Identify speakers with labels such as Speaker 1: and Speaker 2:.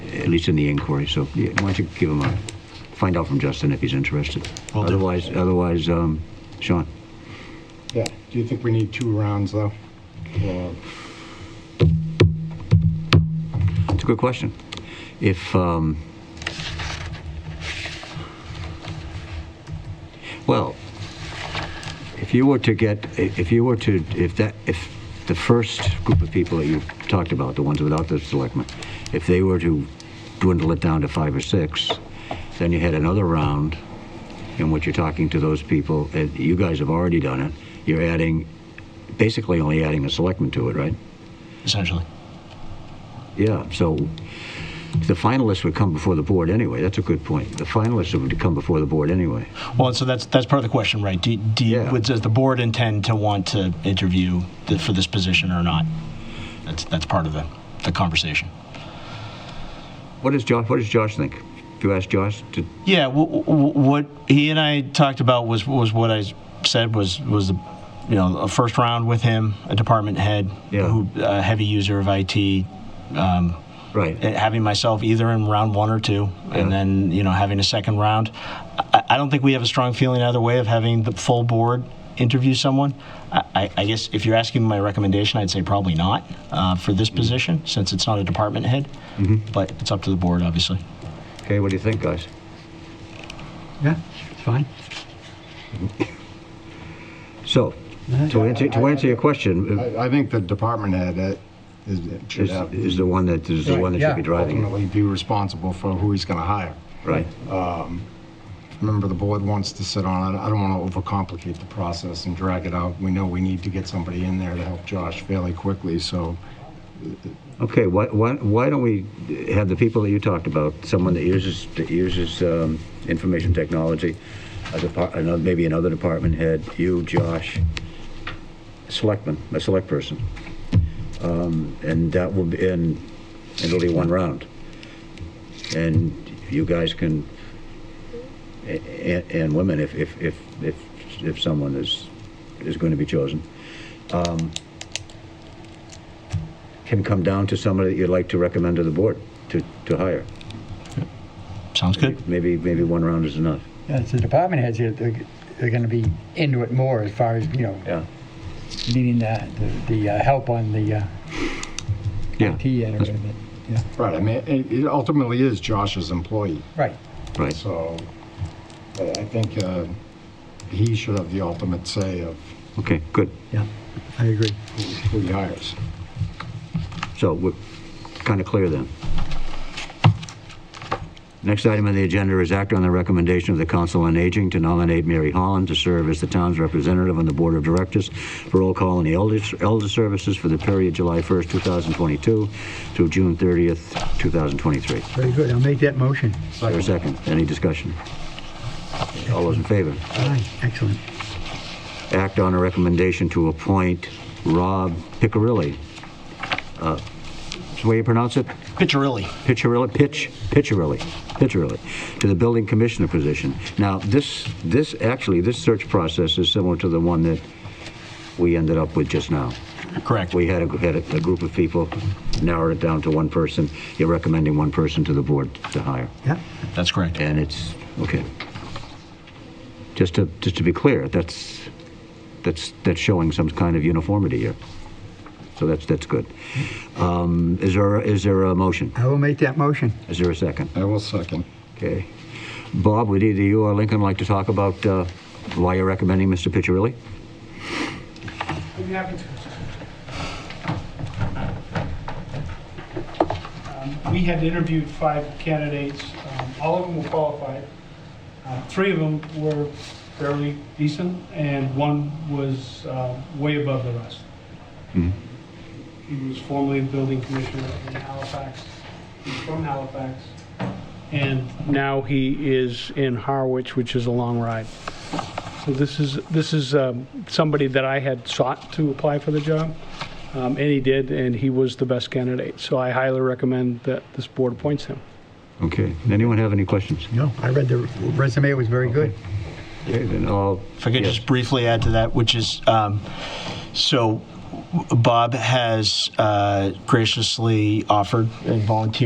Speaker 1: at least in the inquiry. So yeah, why don't you give him a, find out from Justin if he's interested.
Speaker 2: Will do.
Speaker 1: Otherwise, otherwise, um, Sean,
Speaker 3: Yeah, do you think we need two rounds, though? Or-
Speaker 1: it's a good question. If, um, well, if you were to get, if you were to, if that, if the first group of people that you talked about, the ones without the selectmen, if they were to dwindle it down to five or six, then you had another round in which you're talking to those people, and you guys have already done it, you're adding, basically only adding a selectman to it, right?
Speaker 2: essentially.
Speaker 1: Yeah, so the finalists would come before the board anyway. That's a good point. The finalists would come before the board anyway.
Speaker 2: Well, and so that's that's part of the question, right? Do, do you-
Speaker 1: Yeah.
Speaker 2: would- does the board intend to want to interview the, for this position or not? That's that's part of the, the conversation.
Speaker 1: What does Josh, what does Josh think? If you ask Josh, to,
Speaker 2: Yeah, w- w- what he and I talked about was was what I s- said was was the you know a first round with him, a department head,
Speaker 1: Yeah.
Speaker 2: who a heavy user of IT, um,
Speaker 1: right,
Speaker 2: and having myself either in round one or two,
Speaker 1: Yeah.
Speaker 2: and then you know having a second round. I, I don't think we have a strong feeling either way of having the full board interview someone. I, I, I guess if you're asking my recommendation, I'd say probably not uh, for
Speaker 1: Mm-hmm.
Speaker 2: this position since it's not a department head, but it's up to the board, obviously.
Speaker 1: okay, what do you think, guys?
Speaker 4: Yeah, it's fine.
Speaker 1: So, to answer, to answer your question,
Speaker 3: I, I think the department head uh, is, should
Speaker 1: is,
Speaker 3: have-
Speaker 1: is the one that, is the one that should be driving it,
Speaker 3: ultimately be responsible for who he's gonna hire.
Speaker 1: right?
Speaker 3: Remember, the board wants to sit on it. I don't wanna overcomplicate the process and drag it out. We know we need to get somebody in there to help Josh fairly quickly, so
Speaker 1: Okay, why, why, why don't we have the people that you talked about, someone that uses, that uses um, information technology, a depart, another, maybe another department head, you, Josh, selectman, a select person. Um, and that will be, and, and it'll be one round. And you guys can, and, and women, if, if, if, if, if someone is, is going to be chosen, can come down to somebody that you'd like to recommend to the board to, to hire.
Speaker 2: Sounds good.
Speaker 1: Maybe, maybe one round is enough.
Speaker 4: Yeah, it's the department heads, they're, they're going to be into it more as far as, you know,
Speaker 1: Yeah.
Speaker 4: needing the, the, the uh, help on the uh,
Speaker 1: Yeah.
Speaker 4: IT end of it. Yeah,
Speaker 3: Right, I mean, it it ultimately is Josh's employee,
Speaker 4: right.
Speaker 1: Right.
Speaker 3: so I I think uh, he should have the ultimate say of
Speaker 1: Okay, good.
Speaker 4: Yeah, I agree.
Speaker 3: who he hires.
Speaker 1: So we're kind of clear then. Next item on the agenda is act on the recommendation of the Council on Aging to nominate Mary Holland to serve as the town's representative on the Board of Directors for Roll Call and the Elder Elder Services for the period July 1st, 2022 through June 30th, 2023.
Speaker 4: Very good. I'll make that motion.
Speaker 1: Is there a second? Any discussion? All those in favor?
Speaker 4: Aye, excellent.
Speaker 1: act on a recommendation to appoint Rob Piccirilli. Uh, Is the way you pronounce it?
Speaker 2: Piccirilli.
Speaker 1: Piccirilli, Pitch, Piccirilli, Piccirilli, to the building commissioner position. Now, this, this, actually, this search process is similar to the one that we ended up with just now.
Speaker 2: Correct.
Speaker 1: We had a, had a a group of people, narrowed it down to one person. You're recommending one person to the board to hire.
Speaker 4: Yeah,
Speaker 2: That's correct.
Speaker 1: And it's, okay. Just to, just to be clear, that's, that's, that's showing some kind of uniformity here. So that's, that's good. Um, Is there, is there a motion?
Speaker 4: I will make that motion.
Speaker 1: Is there a second?
Speaker 3: I will second.
Speaker 1: Okay. Bob, would either you or Lincoln like to talk about uh, why you're recommending Mr. Piccirilli?
Speaker 5: I'd be happy to. Um, We had interviewed five candidates, Um, all of them were qualified. Uh, Three of them were fairly decent, and one was uh, way above the rest. He was formerly the building commissioner in Halifax, he's from Halifax, and now he is in Harwich, which is a long ride. So this is, this is um, somebody that I had sought to apply for the job, um, and he did, and he was the best candidate. So I highly recommend that this board appoints him.
Speaker 1: Okay. Anyone have any questions?
Speaker 4: No, I read the resume, it was very good.
Speaker 1: Okay, then I'll.
Speaker 2: If I could
Speaker 1: yes.
Speaker 2: just briefly add to that, which is, um, so Bob has uh, graciously offered and volunteered